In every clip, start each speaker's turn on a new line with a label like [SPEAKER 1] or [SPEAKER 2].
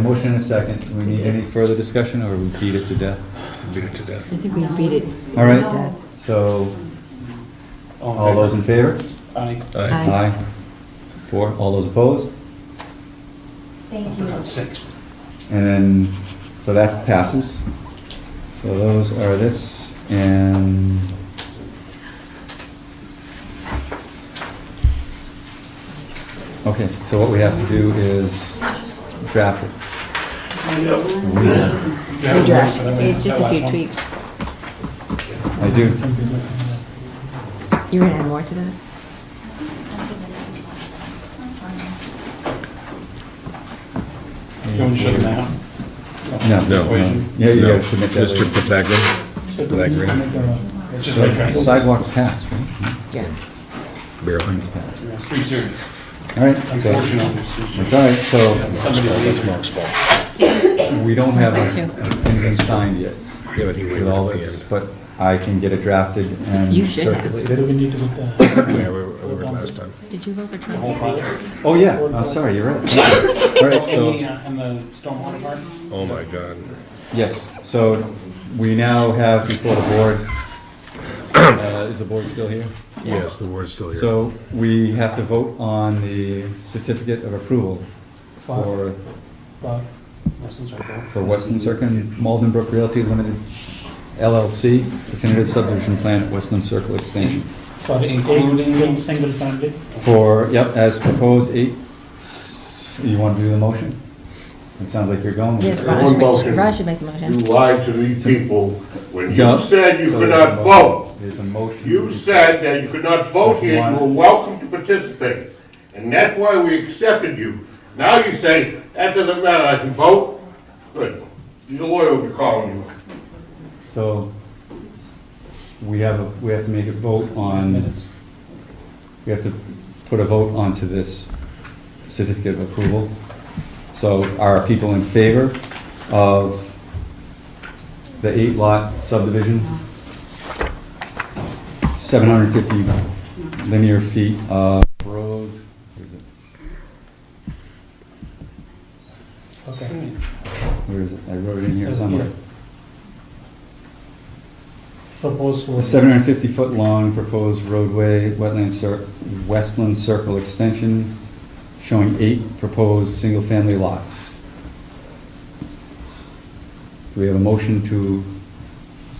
[SPEAKER 1] motion and a second. Do we need any further discussion, or we beat it to death?
[SPEAKER 2] Beat it to death.
[SPEAKER 3] I think we beat it. uh,
[SPEAKER 1] All right.
[SPEAKER 3] Death.
[SPEAKER 1] So, all those in favor?
[SPEAKER 4] Aye.
[SPEAKER 2] Aye.
[SPEAKER 3] Aye.
[SPEAKER 1] Four, all those opposed?
[SPEAKER 5] Thank
[SPEAKER 4] We're
[SPEAKER 5] you.
[SPEAKER 4] on six.
[SPEAKER 1] And then, so that passes. So those are this, and Okay, so what we have to do is draft it.
[SPEAKER 4] You have a
[SPEAKER 3] Draft.
[SPEAKER 4] motion, I mean,
[SPEAKER 3] It's just
[SPEAKER 4] that
[SPEAKER 3] a few
[SPEAKER 4] last one.
[SPEAKER 3] tweaks.
[SPEAKER 1] I do.
[SPEAKER 3] You're gonna add more to that?
[SPEAKER 4] You want to shut it down?
[SPEAKER 1] No.
[SPEAKER 2] No.
[SPEAKER 1] no. Yeah, you
[SPEAKER 2] No,
[SPEAKER 1] gotta submit that.
[SPEAKER 2] Mr. Pataglia,
[SPEAKER 4] It's just like
[SPEAKER 1] So
[SPEAKER 4] triangle.
[SPEAKER 1] Sidewalks passed, right?
[SPEAKER 3] Yes.
[SPEAKER 2] barely.
[SPEAKER 1] Sidewalks passed.
[SPEAKER 4] Three, two.
[SPEAKER 1] All right, so, it's
[SPEAKER 4] Unfortunately.
[SPEAKER 1] all right, so
[SPEAKER 4] Somebody leaves.
[SPEAKER 1] we don't have
[SPEAKER 3] Me too.
[SPEAKER 1] anything signed yet
[SPEAKER 2] Yeah, but he
[SPEAKER 1] with
[SPEAKER 2] waited
[SPEAKER 1] all
[SPEAKER 2] at
[SPEAKER 1] this,
[SPEAKER 2] the
[SPEAKER 1] but I can get it drafted
[SPEAKER 3] You
[SPEAKER 1] and
[SPEAKER 3] should have.
[SPEAKER 1] circulated.
[SPEAKER 4] we need to put the
[SPEAKER 2] end. Yeah, we were, we were last time.
[SPEAKER 3] Did you vote for
[SPEAKER 4] whole
[SPEAKER 3] Trump?
[SPEAKER 4] project?
[SPEAKER 1] Oh, yeah, I'm sorry, you're right. All right, so.
[SPEAKER 4] And uh, the stormwater part?
[SPEAKER 2] Oh, my God.
[SPEAKER 1] Yes, so we now have before the board, uh, is the board still here?
[SPEAKER 2] Yes, the word's still here.
[SPEAKER 1] So we have to vote on the certificate of approval for,
[SPEAKER 4] Bob, Wilson's right there.
[SPEAKER 1] for Westland Circle, Malden Brook Realty Limited LLC, definitive subdivision plan at Westland Circle Extension.
[SPEAKER 4] For including. Single family.
[SPEAKER 1] For, yep, as proposed, eight, s- you want to do the motion? It sounds like you're going. with it.
[SPEAKER 3] Yes,
[SPEAKER 6] Ron should
[SPEAKER 3] Raj should,
[SPEAKER 6] make- Raj should
[SPEAKER 3] make the
[SPEAKER 6] You
[SPEAKER 3] motion.
[SPEAKER 6] lied to these people when
[SPEAKER 1] Yeah.
[SPEAKER 6] you said you
[SPEAKER 1] So
[SPEAKER 6] could
[SPEAKER 1] there's a
[SPEAKER 6] not
[SPEAKER 1] mo-
[SPEAKER 6] vote.
[SPEAKER 1] There's a motion.
[SPEAKER 6] You said that you could not vote here, you were welcome to participate. And that's why we accepted you. Now you say, that doesn't matter, I can vote? Good. Your lawyer will be calling you.
[SPEAKER 1] So we have, a- we have to make a vote on,
[SPEAKER 4] Minutes.
[SPEAKER 1] we have to put a vote onto this certificate of approval. So are people in favor of the eight lot subdivision? 750 linear feet of road, where is it?
[SPEAKER 4] Okay.
[SPEAKER 1] Where is it? I wrote it in here somewhere.
[SPEAKER 4] Proposed
[SPEAKER 1] A 750-foot long proposed roadway, wetland cir, Westland Circle extension, showing eight proposed single-family lots. Do we have a motion to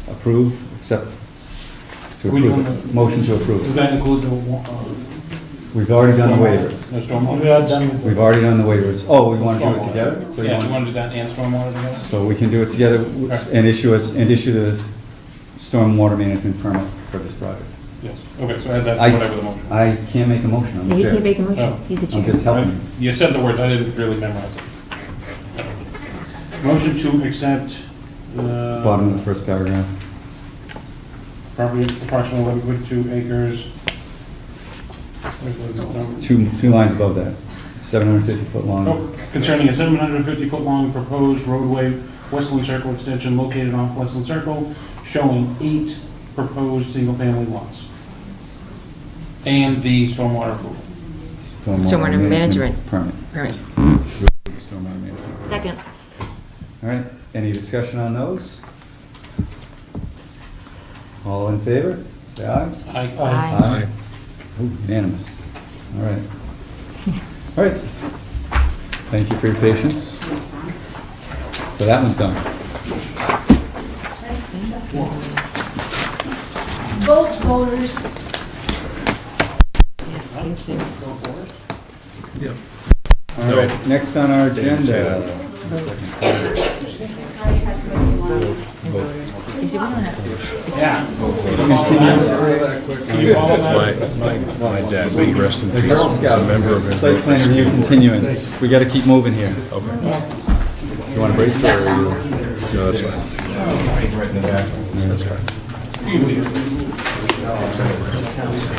[SPEAKER 1] approve, accept, to
[SPEAKER 4] We don't
[SPEAKER 1] approve?
[SPEAKER 4] have-
[SPEAKER 1] it? Motion to
[SPEAKER 4] Does
[SPEAKER 1] approve. it.
[SPEAKER 4] that include the, wa- uh,
[SPEAKER 1] We've already done the waivers.
[SPEAKER 4] the stormwater?
[SPEAKER 7] We are done with
[SPEAKER 1] We've already done the waivers. Oh, we want to do it
[SPEAKER 4] Stormwater.
[SPEAKER 1] together? So you
[SPEAKER 4] Yeah, do
[SPEAKER 1] want-
[SPEAKER 4] you want to do that and stormwater together?
[SPEAKER 1] So we can do it together and issue us, and issue the stormwater management permit for this project.
[SPEAKER 4] Yes, okay, so add that,
[SPEAKER 1] I-
[SPEAKER 4] to whatever the motion.
[SPEAKER 1] I can't make a motion, I'm the
[SPEAKER 3] Yeah, he can
[SPEAKER 1] chair.
[SPEAKER 3] make a
[SPEAKER 4] Oh.
[SPEAKER 3] motion. He's the
[SPEAKER 1] I'm just
[SPEAKER 3] chair.
[SPEAKER 1] helping.
[SPEAKER 4] You said the words, I didn't really memorize it. Motion to accept, uh.
[SPEAKER 1] Bottom of the first paragraph.
[SPEAKER 4] Property approximately eleven point two acres.
[SPEAKER 1] Two, two lines above that, 750-foot long.
[SPEAKER 4] Oh, Concerning a seven hundred and fifty foot long proposed roadway, Westland Circle extension located off Westland Circle, showing eight proposed single family lots. And the stormwater approval.
[SPEAKER 3] Stormwater management.
[SPEAKER 1] Permit.
[SPEAKER 3] All right.
[SPEAKER 1] Stormwater management.
[SPEAKER 3] Second.
[SPEAKER 1] All right, any discussion on those? All in favor? Say aye.
[SPEAKER 4] I,
[SPEAKER 3] Aye.
[SPEAKER 1] Aye. Ooh, Unanimous. All right. All right. Thank you for your patience. So that one's done.
[SPEAKER 5] Vote voters.
[SPEAKER 3] Yes, please do.
[SPEAKER 1] All right, next on our agenda.
[SPEAKER 2] uh,
[SPEAKER 3] You see, we don't have to.
[SPEAKER 4] yeah. Can you follow
[SPEAKER 2] My,
[SPEAKER 4] that?
[SPEAKER 2] my, my dad, may he rest in
[SPEAKER 1] The
[SPEAKER 2] peace,
[SPEAKER 1] Girl
[SPEAKER 2] was a member
[SPEAKER 1] Scouts,
[SPEAKER 2] of his.
[SPEAKER 1] site plan review continuance. We gotta keep moving here.
[SPEAKER 3] Yeah.
[SPEAKER 1] You want a break or? are you-
[SPEAKER 2] No, that's fine. That's fine.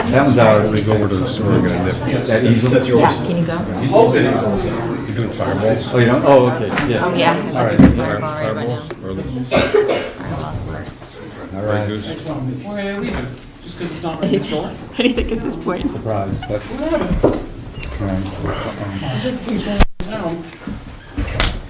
[SPEAKER 1] That one's ours.
[SPEAKER 2] We go over to the store and get a nip.
[SPEAKER 1] That easel? That's yours.
[SPEAKER 3] Yeah, can you go?
[SPEAKER 2] You doing fireballs?
[SPEAKER 1] Oh, you don't, oh, okay, yes.
[SPEAKER 3] Oh, yeah.
[SPEAKER 1] All right,
[SPEAKER 3] Fireball right about now.
[SPEAKER 2] Or the-
[SPEAKER 3] Fireball's work.
[SPEAKER 1] all
[SPEAKER 2] Grey
[SPEAKER 1] right,
[SPEAKER 2] Goose?
[SPEAKER 4] Why are they leaving? Just because it's not ready to store?
[SPEAKER 3] What do you think at this point?
[SPEAKER 1] surprise, but. all right.
[SPEAKER 4] No.